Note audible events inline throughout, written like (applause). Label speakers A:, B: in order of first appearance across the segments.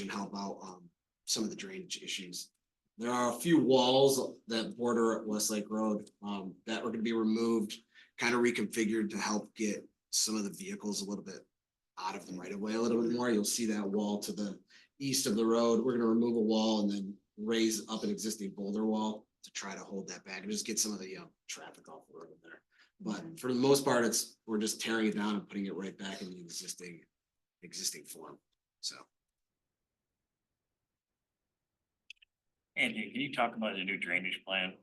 A: can help out um some of the drainage issues. There are a few walls that border Westlake Road um that are gonna be removed, kind of reconfigured to help get some of the vehicles a little bit out of the right of way a little bit more. You'll see that wall to the east of the road. We're gonna remove a wall and then raise up an existing boulder wall to try to hold that back and just get some of the um traffic off the road in there. But for the most part, it's, we're just tearing it down and putting it right back in the existing, existing form, so.
B: Andy, can you talk about the new drainage plan?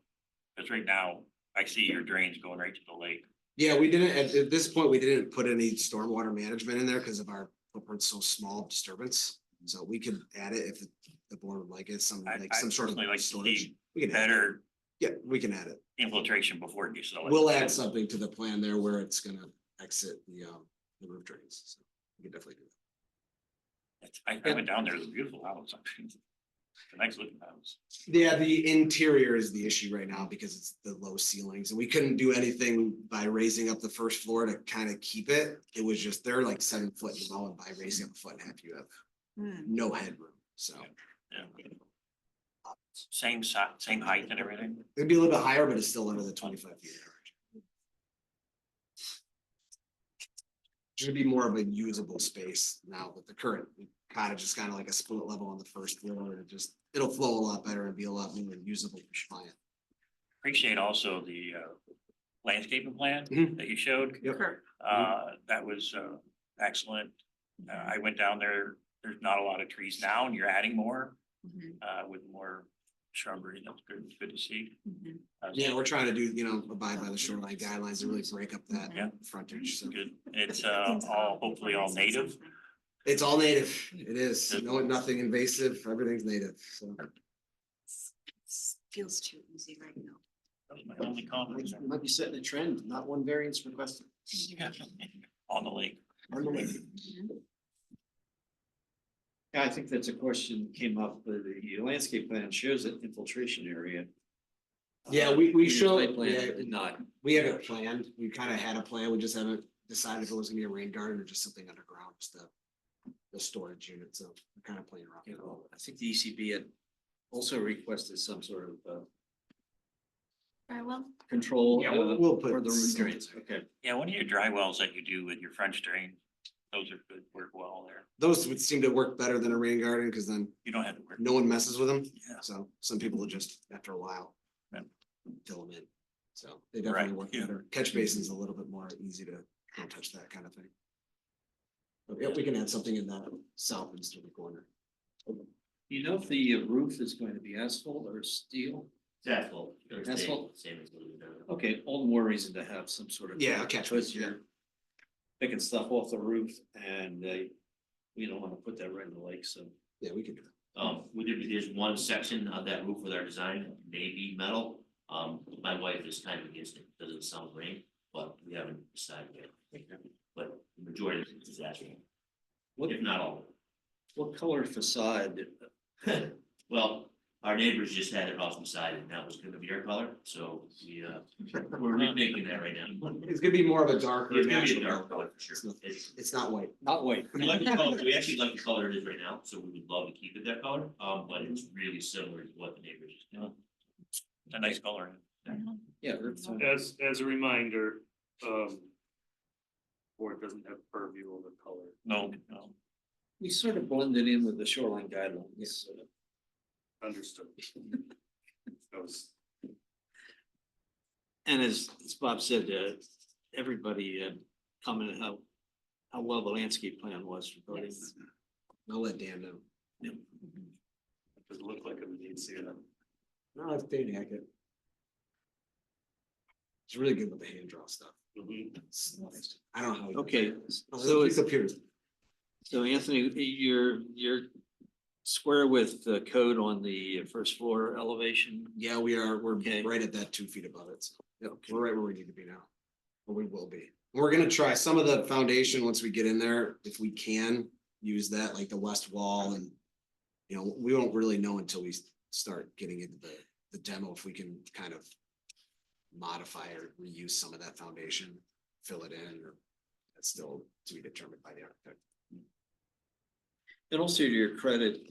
B: Cause right now, I see your drains going right to the lake.
A: Yeah, we didn't, at, at this point, we didn't put any stormwater management in there because of our footprint's so small of disturbance. So we could add it if the board would like it, some,
B: I, I
A: like some sort of
B: personally like to
A: storage.
B: see
A: We can add, it.
B: better
A: yeah, we can add it.
B: infiltration before it gets to the lake.
A: We'll add something to the plan there where it's gonna exit the, um, the roof drains. So We can definitely do that.
B: It's- I I went down there, it's a beautiful house. (laughs) actually. The next looking house.
A: Yeah, the interior is the issue right now because it's the low ceilings and we couldn't do anything by raising up the first floor to kind of keep it. It was just, they're like seven foot low and by raising up a foot and a half, you have
C: Mm-hmm.
A: no headroom, so.
B: Yeah. Same si- same height and everything.
A: It'd be a little bit higher, but it's still under the twenty-five feet average. Should be more of a usable space now with the current cottage is kind of like a split level on the first floor and it just, it'll flow a lot better and be a lot more usable for client.
B: Appreciate also the uh landscaping plan
A: Mhm.
B: that you showed.
A: Yep.
B: Uh, that was uh excellent. Uh, I went down there, there's not a lot of trees now and you're adding more
C: Mm-hmm.
B: uh with more shrubbery. That's good, good to see. Uh,
A: Yeah, we're trying to do, you know, abide by the shoreline guidelines and really break up that
C: Mm-hmm.
B: Yeah.
A: frontage, so
B: Good. It's uh all hopefully all native.
A: it's all native, it is, no, nothing invasive, everything's native, so.
C: Feels too easy right now.
B: That was my only comment.
A: Might be setting a trend, not one variance requested.
B: On the lake.
D: Yeah, I think that's a question that came up, but the landscape plan shows an infiltration area.
A: Yeah,
D: Uh,
A: we, we
D: your
A: showed,
D: site plan
A: yeah,
D: did Not,
A: we have it planned, we kind of had a plan, we just haven't decided if it was gonna be a rain garden or just something underground, just the. The storage unit, so we're kind of playing around.
D: you know, I think the ECB had also requested some sort of uh
C: Very well.
D: control.
A: Yeah,
D: uh,
A: we'll- we'll put
D: For the roof
A: some-
D: drains, okay.
B: Yeah, one of your dry wells that you do with your French drain, those are good, work well there.
A: Those would seem to work better than a rain garden, because then
B: You don't have to work.
A: no one messes with them.
B: Yeah.
A: So some people will just, after a while,
B: Yeah.
A: fill them in. So they
B: Right,
A: definitely work
B: yeah.
A: better. Catch basin's a little bit more easy to don't touch that kind of thing. But yeah, we can add something in that south easterly corner.
D: You know if the uh, roof is going to be asphalt or steel?
E: Asphalt.
D: Asphalt.
E: Same as what we've done.
D: Okay, all the more reason to have some sort of.
A: Yeah, a catch
D: Because
A: basin, yeah.
D: you're Picking stuff off the roof and they, we don't want to put that right in the lake, so.
A: Yeah, we can do that.
E: Um, we did, there's one section of that roof with our design, maybe metal. Um, my wife is kind of against it, doesn't sound great, but we haven't decided yet. But the majority of it is asphalt,
D: What,
E: if not all.
D: what color facade
E: (laughs) Well, our neighbors just had it off the side and that was gonna be our color, so we, uh, we're rethinking that right now.
A: It's gonna be more of a darker.
E: It's gonna be a
A: natural
E: dark
A: color.
E: color for
A: It's
E: sure.
A: not-
E: It's,
A: It's not white.
D: Not white.
E: We like the color, we actually like the color it is right now, so we would love to keep it that color, um, but it's really similar to what the neighbors just did.
B: It's a nice color.
D: Yeah.
F: As, as a reminder, um. Board doesn't have purview over color.
B: No, no.
D: We sort of blended in with the shoreline guidelines. (laughs)
F: Understood. That was,
D: And as, as Bob said, uh, everybody uh, commented how, how well the landscape plan was regarding.
C: Yes.
A: I'll let Dan know.
F: it doesn't look like it would need to.
A: No, it's Dan Hackett. He's really good with the hand draw stuff.
F: Mhm.
A: It's- I don't know. how he does
D: Mm-hmm. Okay,
A: it.
D: so it's,
A: Computers.
D: so Anthony, you're, you're square with the code on the first floor elevation.
A: Yeah, we are, we're
D: Okay.
A: right at that two feet above it, so, yeah, we're right where we need to be now. Or we will be, we're gonna try some of the foundation, once we get in there, if we can, use that, like the west wall and. You know, we won't really know until we start getting into the, the demo, if we can kind of. Modify or reuse some of that foundation, fill it in, or that's still to be determined by the architect.
D: And also to your credit,